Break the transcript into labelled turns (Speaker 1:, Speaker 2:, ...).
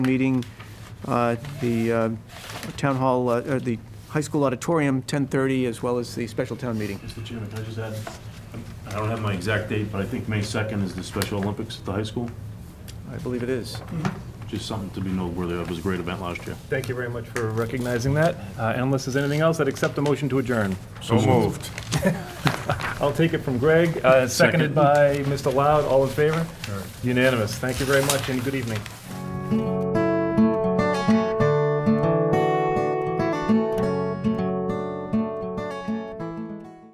Speaker 1: meeting, uh, the uh, town hall, uh, or the high school auditorium, 10:30, as well as the special town meeting.
Speaker 2: Mr. Chairman, can I just add, I don't have my exact date, but I think May 2nd is the Special Olympics at the high school.
Speaker 1: I believe it is.
Speaker 2: Just something to be noteworthy of. It was a great event last year.
Speaker 3: Thank you very much for recognizing that. Uh, And unless there's anything else, I'd accept a motion to adjourn.
Speaker 4: So moved.
Speaker 3: I'll take it from Greg, uh, seconded
Speaker 2: Second.
Speaker 3: by Mr. Loud. All in favor? Unanimous. Thank you very much and good evening.